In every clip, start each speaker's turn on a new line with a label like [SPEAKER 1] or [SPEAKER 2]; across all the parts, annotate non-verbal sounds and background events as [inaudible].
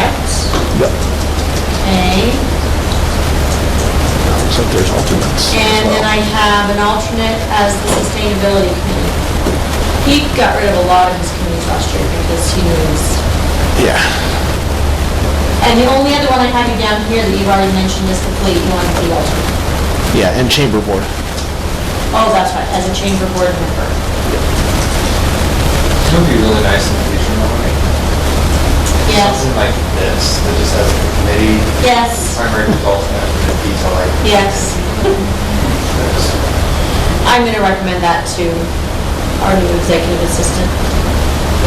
[SPEAKER 1] correct?
[SPEAKER 2] Yep.
[SPEAKER 1] Okay.
[SPEAKER 2] So there's alternates. as
[SPEAKER 1] And then
[SPEAKER 2] well.
[SPEAKER 1] I have an alternate as the sustainability committee. He got rid of a lot of his committees last year because he was,
[SPEAKER 2] Yeah.
[SPEAKER 1] and the only other one I have you down here that you've already mentioned is the fleet, you want to be alternate.
[SPEAKER 2] Yeah, and chamber board.
[SPEAKER 1] Oh, that's right, as a chamber board member.
[SPEAKER 3] It would be really nice in the future, like,
[SPEAKER 1] Yes,
[SPEAKER 3] something like this, that just has a committee,
[SPEAKER 1] yes,
[SPEAKER 3] primary results, and a detail like
[SPEAKER 1] yes.
[SPEAKER 3] this.
[SPEAKER 1] I'm going to recommend that to our new executive assistant.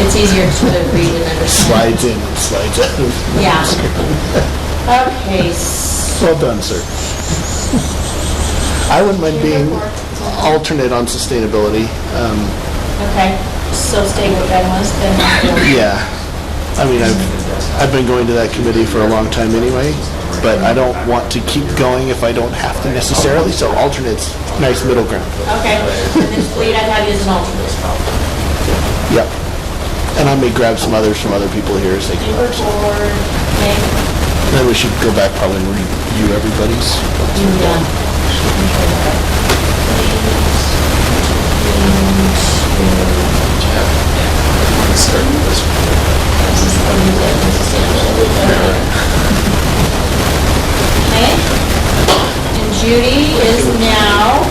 [SPEAKER 1] It's easier to sort of read and understand.
[SPEAKER 2] Slides in and slides out.
[SPEAKER 1] Yeah. Okay, s-
[SPEAKER 2] Well done, sir. I wouldn't mind being alternate on sustainability. Um,
[SPEAKER 1] okay, so stay with Ben was, then we'll-
[SPEAKER 2] Yeah. I mean, I've, I've been going to that committee for a long time anyway, but I don't want to keep going if I don't have to necessarily, so alternate's nice middle ground.
[SPEAKER 1] okay. And then Fleet, I'd have you as an alternate as well.
[SPEAKER 2] Yep. And I may grab some others from other people here as they come
[SPEAKER 1] Chamber
[SPEAKER 2] up. so.
[SPEAKER 1] board, maybe,
[SPEAKER 2] Then we should go back probably and review everybody's.
[SPEAKER 1] yeah. Okay. And Judy is now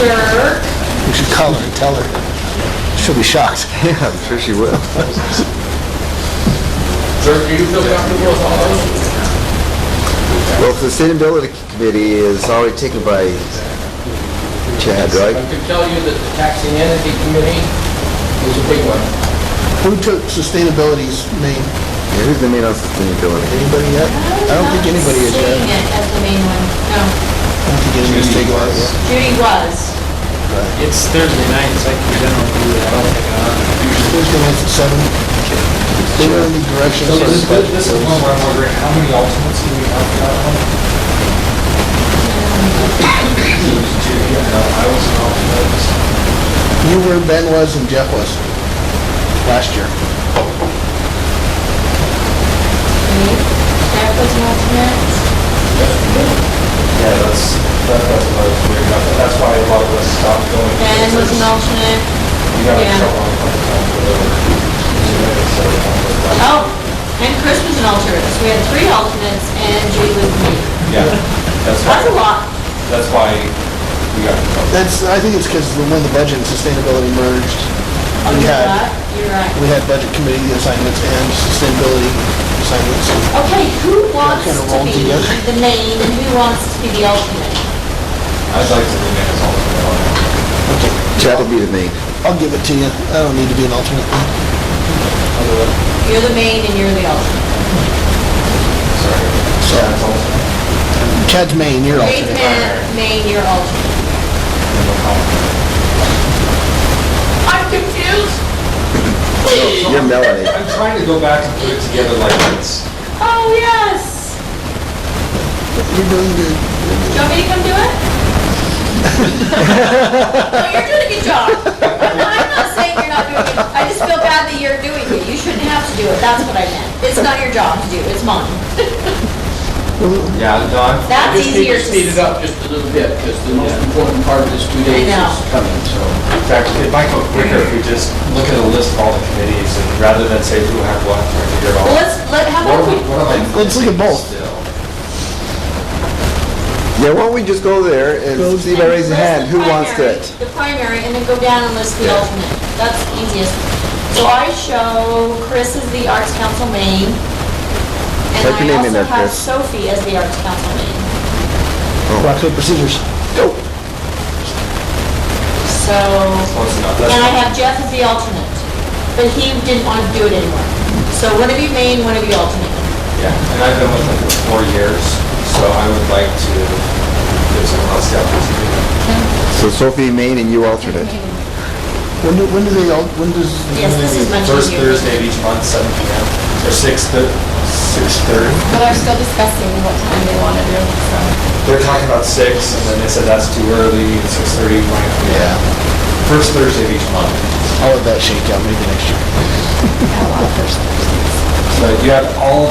[SPEAKER 1] Dirk.
[SPEAKER 2] We should call her and tell her. She'll be shocked.
[SPEAKER 4] [laughs] Yeah, I'm sure she will.
[SPEAKER 3] Sir, do you feel comfortable with all those?
[SPEAKER 4] Well, if the sustainability committee is already taken by Chad,
[SPEAKER 5] I
[SPEAKER 4] right?
[SPEAKER 5] could tell you that the taxing entity committee is a big one.
[SPEAKER 2] Who took sustainability's name?
[SPEAKER 4] Yeah, Who's the main on sustainability?
[SPEAKER 2] Anybody yet? I don't think anybody is
[SPEAKER 1] Seeing
[SPEAKER 2] yet.
[SPEAKER 1] it as the main one, no.
[SPEAKER 2] I don't think anybody's taken that yet.
[SPEAKER 1] Judy was.
[SPEAKER 6] It's Thursday night, so I can generally do it, I don't think I'm on.
[SPEAKER 2] Thursday nights at seven. They were in the direction.
[SPEAKER 3] So this, this is one where I'm wondering, how many alternates do we have for that [coughs] one? Two, yeah, no, I was an alternate.
[SPEAKER 2] You were, Ben was, and Jeff was last year.
[SPEAKER 1] Me. Jeff was an alternate.
[SPEAKER 3] Yeah, that's, that- that's what I was worried about, but that's why a lot of us stopped going.
[SPEAKER 1] Ben was an alternate.
[SPEAKER 3] You got in
[SPEAKER 1] yeah.
[SPEAKER 3] trouble a couple times with over.
[SPEAKER 1] Oh, and Chris was an alternate. So we had three alternates and Judy was me.
[SPEAKER 3] Yeah, that's why,
[SPEAKER 1] That's a lot.
[SPEAKER 3] that's why we got in trouble.
[SPEAKER 2] That's, I think it's because when the budget and sustainability merged,
[SPEAKER 1] Oh,
[SPEAKER 2] we
[SPEAKER 1] you're
[SPEAKER 2] had,
[SPEAKER 1] right. You're right.
[SPEAKER 2] we had budget committee assignments and sustainability assignments.
[SPEAKER 1] Okay, who wants
[SPEAKER 2] kinda
[SPEAKER 1] to
[SPEAKER 2] rolled
[SPEAKER 1] be
[SPEAKER 2] together.
[SPEAKER 1] the main and who wants to be the alternate?
[SPEAKER 3] I'd like to remain as alternate on that.
[SPEAKER 2] Okay,
[SPEAKER 4] Chad will be the main.
[SPEAKER 2] I'll give it to you. I don't need to be an alternate.
[SPEAKER 1] You're the main and you're the alternate.
[SPEAKER 3] Sorry. Chad's alternate.
[SPEAKER 2] Chad's main, you're
[SPEAKER 1] Main,
[SPEAKER 2] alternate.
[SPEAKER 1] man- main, you're alternate.
[SPEAKER 3] and we'll call it.
[SPEAKER 1] I'm confused.
[SPEAKER 4] You're Melanie.
[SPEAKER 3] I'm trying to go back and put it together like it's,
[SPEAKER 1] Oh, yes.
[SPEAKER 2] You're doing good.
[SPEAKER 1] Do you want me to come do
[SPEAKER 4] [laughs]
[SPEAKER 1] it? No, you're doing a good job. No, I'm not saying you're not doing it. I just feel bad that you're doing it. You shouldn't have to do it. That's what I meant. It's not your job to do, it's mine.
[SPEAKER 3] yeah, no, I'm
[SPEAKER 1] That's
[SPEAKER 5] Just need
[SPEAKER 1] easier
[SPEAKER 5] to speed it
[SPEAKER 1] to... s-
[SPEAKER 5] up just a little bit, because the most important part of this two days
[SPEAKER 1] know.
[SPEAKER 5] is coming, so.
[SPEAKER 3] In fact, it might go quicker if we just look at a list of all the committees and rather than say who had what, try to figure it
[SPEAKER 1] Well,
[SPEAKER 3] all.
[SPEAKER 1] let's, let, how
[SPEAKER 3] What
[SPEAKER 1] about
[SPEAKER 3] are we,
[SPEAKER 1] we,
[SPEAKER 3] what am I
[SPEAKER 2] Let's look at
[SPEAKER 3] missing
[SPEAKER 2] both.
[SPEAKER 3] still?
[SPEAKER 4] Yeah, why don't we just go there and see if I raise a hand, who wants
[SPEAKER 1] List
[SPEAKER 4] it?
[SPEAKER 1] The primary, the primary, and then go down and list the alternate. That's easiest. So I show Chris as the Arts Council main, and
[SPEAKER 4] Type your name
[SPEAKER 1] I also
[SPEAKER 4] in there,
[SPEAKER 1] have
[SPEAKER 4] Chris.
[SPEAKER 1] Sophie as the Arts Council main.
[SPEAKER 2] Rock, paper, scissors.
[SPEAKER 4] Go.
[SPEAKER 1] So,
[SPEAKER 3] Close enough.
[SPEAKER 1] and I
[SPEAKER 3] That's-
[SPEAKER 1] have Jeff as the alternate, but he didn't want to do it anymore. So one of you main, one of you alternate.
[SPEAKER 3] Yeah, and I've been with them for four years, so I would like to give someone else the opportunity.
[SPEAKER 4] So Sophie main and you alternate.
[SPEAKER 2] When do, when do they, all? when does?
[SPEAKER 1] Yes, this is much
[SPEAKER 3] First
[SPEAKER 1] easier.
[SPEAKER 3] Thursday of each month, seven P M, or six, six thirty.
[SPEAKER 7] But they're still discussing what time they want to do, so.
[SPEAKER 3] They're talking about six, and then they said that's too early, and six thirty might be.
[SPEAKER 2] Yeah,
[SPEAKER 3] First Thursday of each month.
[SPEAKER 2] I'll let that shake out maybe next year.
[SPEAKER 3] So you have all